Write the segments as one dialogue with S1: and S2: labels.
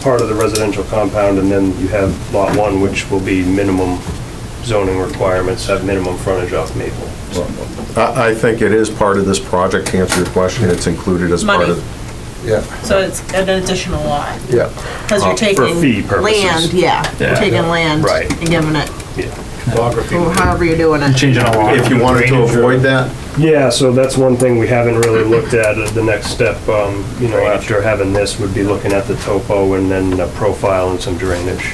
S1: part of the residential compound, and then you have lot one, which will be minimum zoning requirements, have minimum frontage off Maple.
S2: I, I think it is part of this project, to answer your question, it's included as part
S3: Money.
S2: of.
S4: Yeah,
S3: So it's an additional lot,
S4: yeah.
S3: because
S2: Uh,
S3: you're
S2: for
S1: fee
S3: taking
S1: purposes.
S3: land, yeah,
S1: Yeah.
S3: you're taking land
S1: Right.
S3: and giving it,
S1: Topography.
S3: or however you're doing it.
S5: Changing a lot.
S2: If you wanted to avoid that,
S1: Yeah, so that's one thing we haven't really looked at, Uh, the next step, um, you know, after having this, would be looking at the topo and then a profile and some drainage.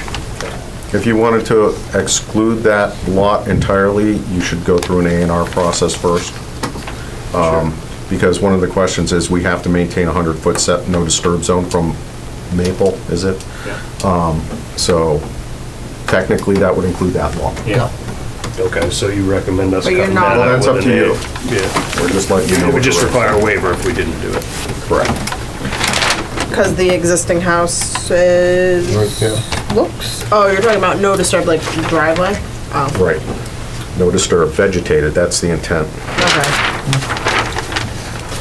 S2: if you wanted to exclude that lot entirely, you should go through an A and R process first. Um, Because one of the questions is, we have to maintain a hundred-foot set, no disturb zone from Maple, is it? Um, So technically, that would include that lot.
S1: Yeah. Okay, so you recommend us
S3: But you're
S1: cutting
S3: not-
S1: that
S2: Well,
S1: out
S2: that's
S1: with
S2: up
S1: an
S2: to
S1: A?
S2: you.
S1: Yeah,
S2: We're just letting you know.
S1: it would just
S2: what we're-
S1: require a waiver if we didn't do it.
S2: Correct.
S3: Because the existing house is,
S4: Right there.
S3: looks, oh, you're talking about no disturb, like driveway? Oh,
S2: Right. No disturb, vegetated, that's the intent.
S3: okay.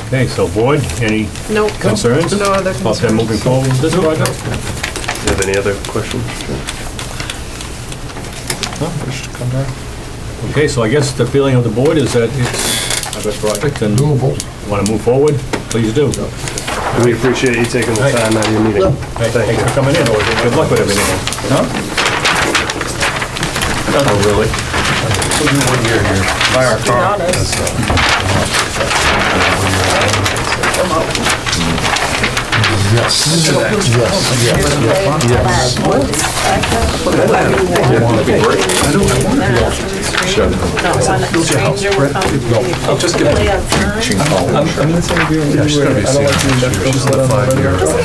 S5: Okay, so board, any
S3: Nope.
S5: concerns?
S3: No other
S5: about that moving
S3: concerns.
S5: forward with this project?
S1: Do you have any other questions?
S5: Okay, so I guess the feeling of the board is that it's a good project and you
S4: Doable.
S5: want to move forward, please do.
S1: We appreciate you taking the time out of your meeting.
S5: Hey, Thanks for coming in, good luck with everything.
S2: Oh, really?
S3: Be honest.
S4: Yes, yes, yes.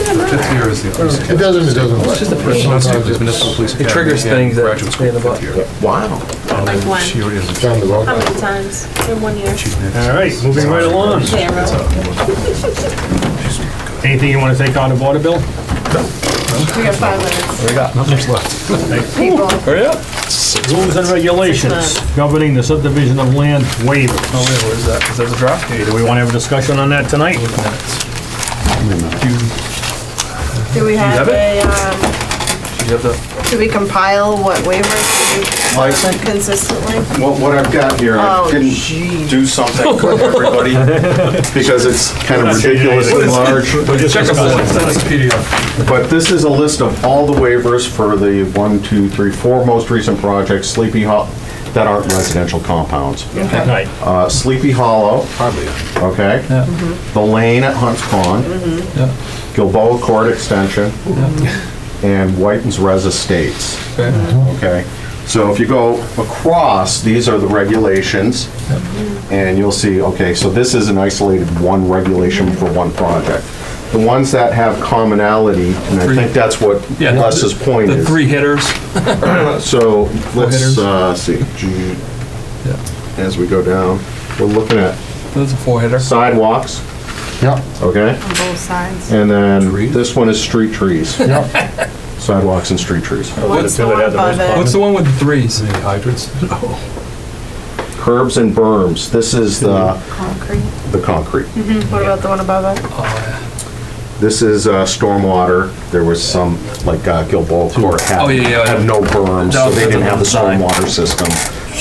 S4: It doesn't, it doesn't. It's just a
S6: It triggers things that stay in the butt.
S2: Wow.
S7: Like one,
S4: Down the road.
S7: how many times in one year?
S5: All right, moving right along.
S7: Zero.
S5: Anything you want to take on the board, Bill?
S3: We got five minutes.
S5: Hurry up. Rules and regulations governing the subdivision of land waiver.
S6: Oh, yeah, what is that? Is that the draft?
S5: Okay, do we want to have a discussion on that tonight?
S3: Do we have
S6: have
S3: a, um,
S6: Do you have the,
S3: do we compile what waivers
S2: Mike?
S3: should be consistently?
S2: What, what I've got here, I
S3: Oh,
S2: didn't do something for everybody because it's kind of ridiculous and large.
S6: check the board, it's on this PDF.
S2: But this is a list of all the waivers for the one, two, three, four most recent projects, Sleepy Hollow, that aren't residential compounds.
S5: Right.
S2: Uh, Sleepy Hollow,
S6: Hardly.
S2: okay?
S6: Yeah.
S2: The Lane at Hunts Pond,
S6: Yeah.
S2: Gilboa Court Extension, and Whiten's Res Estates.
S6: Okay.
S2: Okay, so if you go across, these are the regulations, and you'll see, okay, so this is an isolated one regulation for one project. The ones that have commonality, and I think that's what
S6: Yeah.
S2: Les's point
S6: The
S2: is.
S6: three hitters.
S2: So let's
S6: hitters.
S2: uh, see, G-
S6: Yeah.
S2: as we go down, we're looking at
S6: That's a four hitter.
S2: sidewalks,
S4: Yeah,
S2: okay?
S3: On both sides.
S2: And then
S6: Trees.
S2: this one is street trees,
S4: yeah.
S2: sidewalks and street trees.
S3: What's the one above
S6: What's
S3: it?
S6: the one with the threes?
S4: Hydrants?
S2: Curbs and berms, this is the,
S3: Concrete.
S2: the concrete.
S3: What about the one above it?
S2: This is uh, stormwater. There was some, like uh, Gilboa Court had,
S6: Oh, yeah, yeah, yeah.
S2: had no berm, so they didn't have the stormwater system.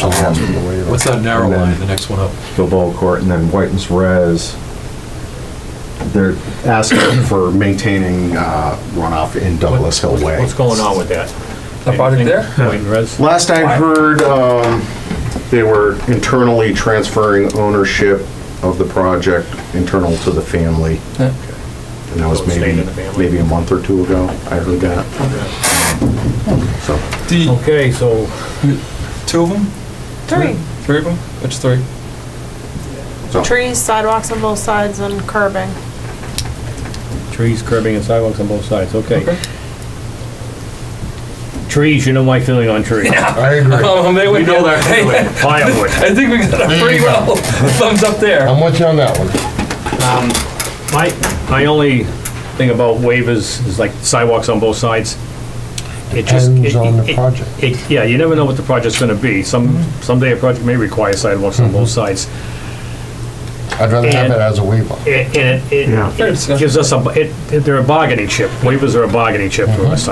S2: Um,
S6: What's that narrow
S2: And then-
S6: line, the next one up?
S2: Gilboa Court and then Whiten's Res. They're asking for maintaining uh, runoff in Douglas Hill Way.
S5: What's going on with that?
S6: That project there?
S5: Wait, Reds?
S2: Last I heard, um, they were internally transferring ownership of the project internal to the family.
S6: Yeah.
S2: And that was
S5: So it stayed
S2: maybe,
S5: in the family.
S2: maybe a month or two ago. I heard that. So.
S6: D,
S5: Okay, so
S6: two of them?
S3: Three.
S6: Three of them? Which three?
S3: Trees, sidewalks on both sides, and curbing.
S5: trees, curbing, and sidewalks on both sides, okay.
S6: Okay.
S5: Trees, you know my feeling on trees.
S4: I agree.
S6: Oh, they would go there. Hey,
S5: Firewood.
S6: I think we got a pretty well thumbs up there.
S4: I'm with you on that one.
S5: My, my only thing about waivers is like sidewalks on both sides. It just.
S4: Depends
S5: it-
S4: on the
S5: it-
S4: project. Mm-hmm.
S5: it- Yeah, you never know what the project's gonna be. Some, someday a project may require sidewalks on both sides.
S4: I'd rather have it as a waiver. Mm-hmm.
S5: And it- it, it gives us a, it, they're a bargaining chip. Waivers are a bargaining chip for us,